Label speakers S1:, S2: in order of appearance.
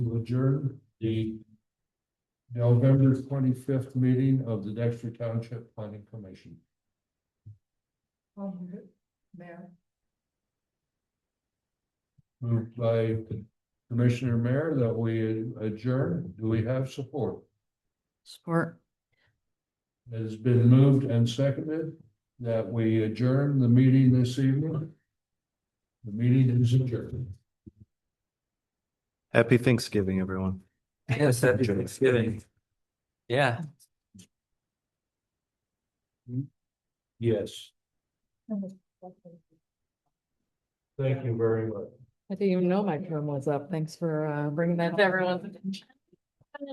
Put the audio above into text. S1: adjourn the November twenty-fifth meeting of the Dexter Township Planning Commission.
S2: Mayor.
S1: Moved by Commissioner Mayor that we adjourn. Do we have support?
S2: Support.
S1: It has been moved and seconded that we adjourn the meeting this evening. The meeting is adjourned.
S3: Happy Thanksgiving, everyone.
S4: Yes, happy Thanksgiving. Yeah.
S1: Yes, thank you very much.
S2: I didn't even know my term was up. Thanks for uh, bringing that to everyone's attention.